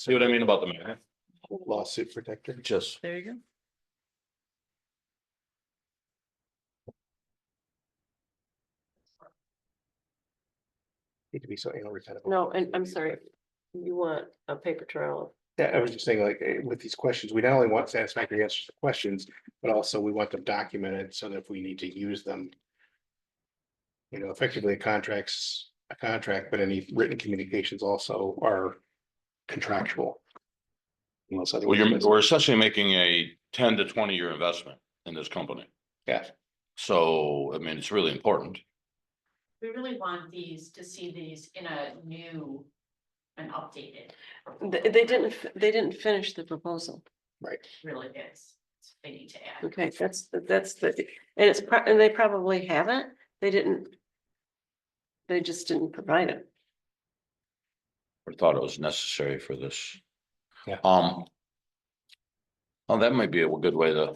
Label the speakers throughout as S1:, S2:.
S1: See what I mean about the math?
S2: lawsuit protector.
S1: Just.
S3: There you
S2: Need to be so anal retentive.
S4: No, and I'm sorry, you want a paper trail.
S2: Yeah, I was just saying, like, eh, with these questions, we not only want satisfactory answers to questions, but also we want them documented so that if we need to use them. You know, effectively a contracts, a contract, but any written communications also are contractual. Unless
S1: Well, you're,
S2: otherwise.
S1: we're essentially making a ten to twenty year investment in this company.
S2: Yeah,
S1: So, I mean, it's really important.
S5: We really want these to see these in a new and updated.
S4: They, they didn't, f- they didn't finish the proposal.
S5: Really is, they need to add.
S4: Okay, that's, that's the, and it's, pro- and they probably haven't, they didn't. They just didn't provide it.
S1: I thought it was necessary for this.
S2: Yeah.
S1: Um. Oh, that might be a good way to,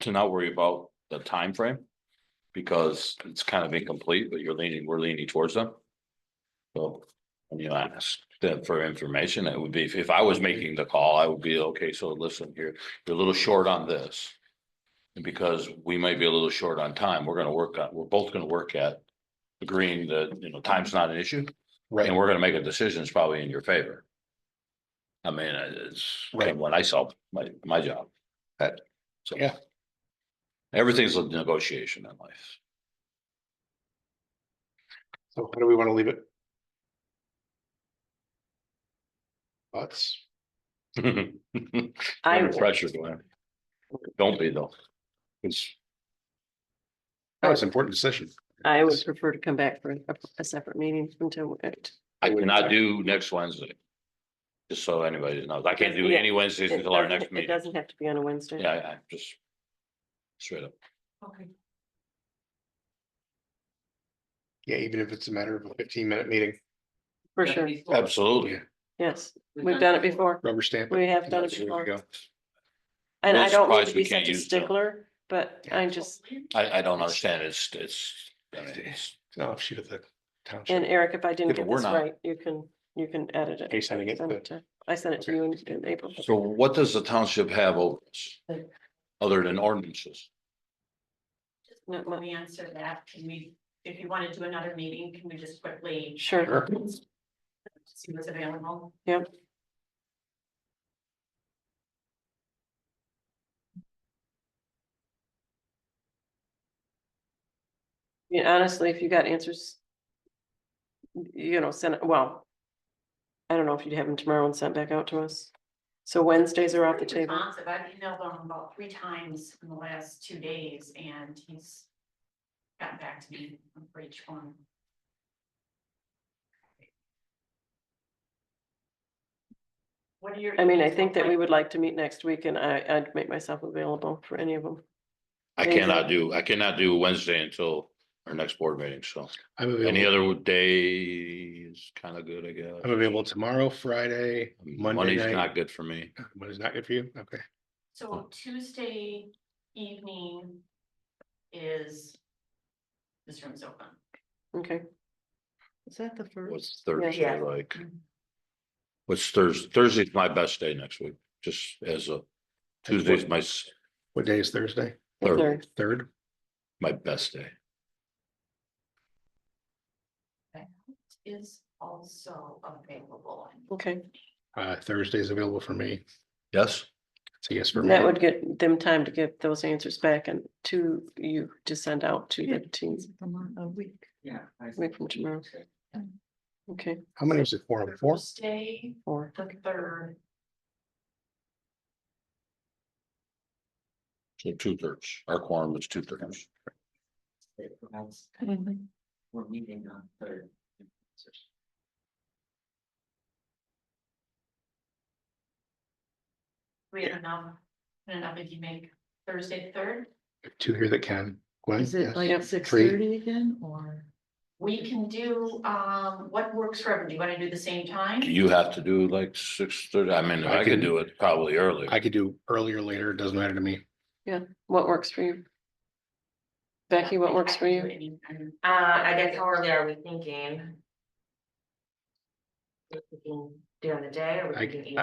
S1: to not worry about the time frame Because it's kind of incomplete, but you're leaning, we're leaning towards them. So, I mean, I asked them for information, it would be, if- if I was making the call, I would be, okay, so listen, you're, you're a little short on this. And because we might be a little short on time, we're gonna work on, we're both gonna work at agreeing that, you know, time's not an issue.
S2: right.
S1: And we're gonna make a decision that's probably in your favor. I mean, uh, it's
S2: Right.
S1: what I saw, my, my job.
S2: That-
S1: So-
S2: yeah.
S1: Everything's a negotiation in life.
S2: So how do we want to leave it? Thoughts?
S4: I,
S1: Under Pressure, Glenn. Don't be though.
S2: It's. No, it's an important decision.
S4: I would prefer to come back for a, a separate meeting until. uh, it-
S1: I cannot do next Wednesday. Just so anybody knows, I can't do
S4: Yeah.
S1: any Wednesdays
S4: it
S1: until our
S4: doesn't-
S1: next
S4: It
S1: meeting.
S4: doesn't have to be on a Wednesday.
S1: Yeah, I, I just. Straight up.
S5: Okay.
S2: Yeah, even if it's a matter of a fifteen minute meeting,
S4: For sure,
S1: Absolutely.
S4: yes, we've done it before,
S2: rubber stamp. it.
S4: we have done it
S2: There you
S4: before,
S2: go.
S4: and
S1: We're
S4: I don't mean
S1: surprised
S4: to
S1: we
S4: be
S1: can't
S4: such a
S1: use the-
S4: stickler, but I just,
S1: I, I don't understand, it's, it's. I mean, it's-
S2: No, shoot at the
S4: and
S2: township.
S4: Eric, if I didn't
S1: Yeah, but
S4: get
S1: we're
S4: this
S1: not.
S4: right, you can, you can edit it.
S2: Are you sending it
S4: Send
S2: to-
S4: it to- I sent it to
S2: Okay.
S4: you in, in April.
S1: So what does the township have over us? Other than ordinances?
S4: Not
S5: When
S4: much.
S5: we answer that, can we, if you want to do another meeting, can we just quickly
S4: Sure,
S2: Sure.
S5: see what's available?
S4: I mean, honestly, if you got answers. You know, send it, well. I don't know if you'd have them tomorrow and sent back out to us. So Wednesdays are off the
S5: Pretty
S4: table.
S5: responsive. I've emailed him about three times in the last two days and he's gotten back to me for each one. What are your?
S4: I mean, I
S5: emails
S4: think that
S5: look
S4: we
S5: like?
S4: would like to meet next week and I, I'd make myself available for any of them.
S1: I
S4: Anything.
S1: cannot do, I cannot do Wednesday until our next board meeting, so
S2: I'm
S1: any
S2: available,
S1: other day is kind of good, I
S2: I'm
S1: guess.
S2: available tomorrow, Friday, Monday
S1: Monday's not
S2: night.
S1: good for me.
S2: Monday's not good for you? Okay.
S5: So Tuesday evening is, this room's open.
S4: Okay. Is that the first?
S1: What's Thursday
S5: Yeah. Mm-hmm.
S1: like? What's Thursday? Thursday's my best day next week, just as a, Tuesday's my, s-
S2: What day is Thursday?
S1: third.
S4: Third.
S2: Third?
S1: my best day.
S5: Is also available.
S4: Okay,
S2: Uh, Thursday is available for me.
S1: Yes?
S2: It's a yes for me.
S4: that would get them time to get those answers back and to you to send out to the teams
S5: A week. Yeah.
S4: week from tomorrow. Okay,
S2: How many is it for? Four?
S5: Thursday,
S4: or
S5: the third,
S1: So two thirds, our quorum is two thirds.
S6: We're meeting on third.
S5: we have enough, enough if you make Thursday the third.
S2: Two here that can. Gwen,
S6: Is it
S2: yes?
S4: Yep.
S6: like six
S2: Three.
S6: thirty again or?
S5: We can do, um, what works for everyone, do you wanna do the same time?
S1: Do you have to do like six thirty? I mean,
S2: I
S1: I could
S2: can-
S1: do it probably early.
S2: I could do earlier, later, it doesn't matter to me.
S4: what works for you? Becky, what works for you?
S5: Uh, I guess how early are we thinking? during the day or? we
S2: I-
S5: can eat?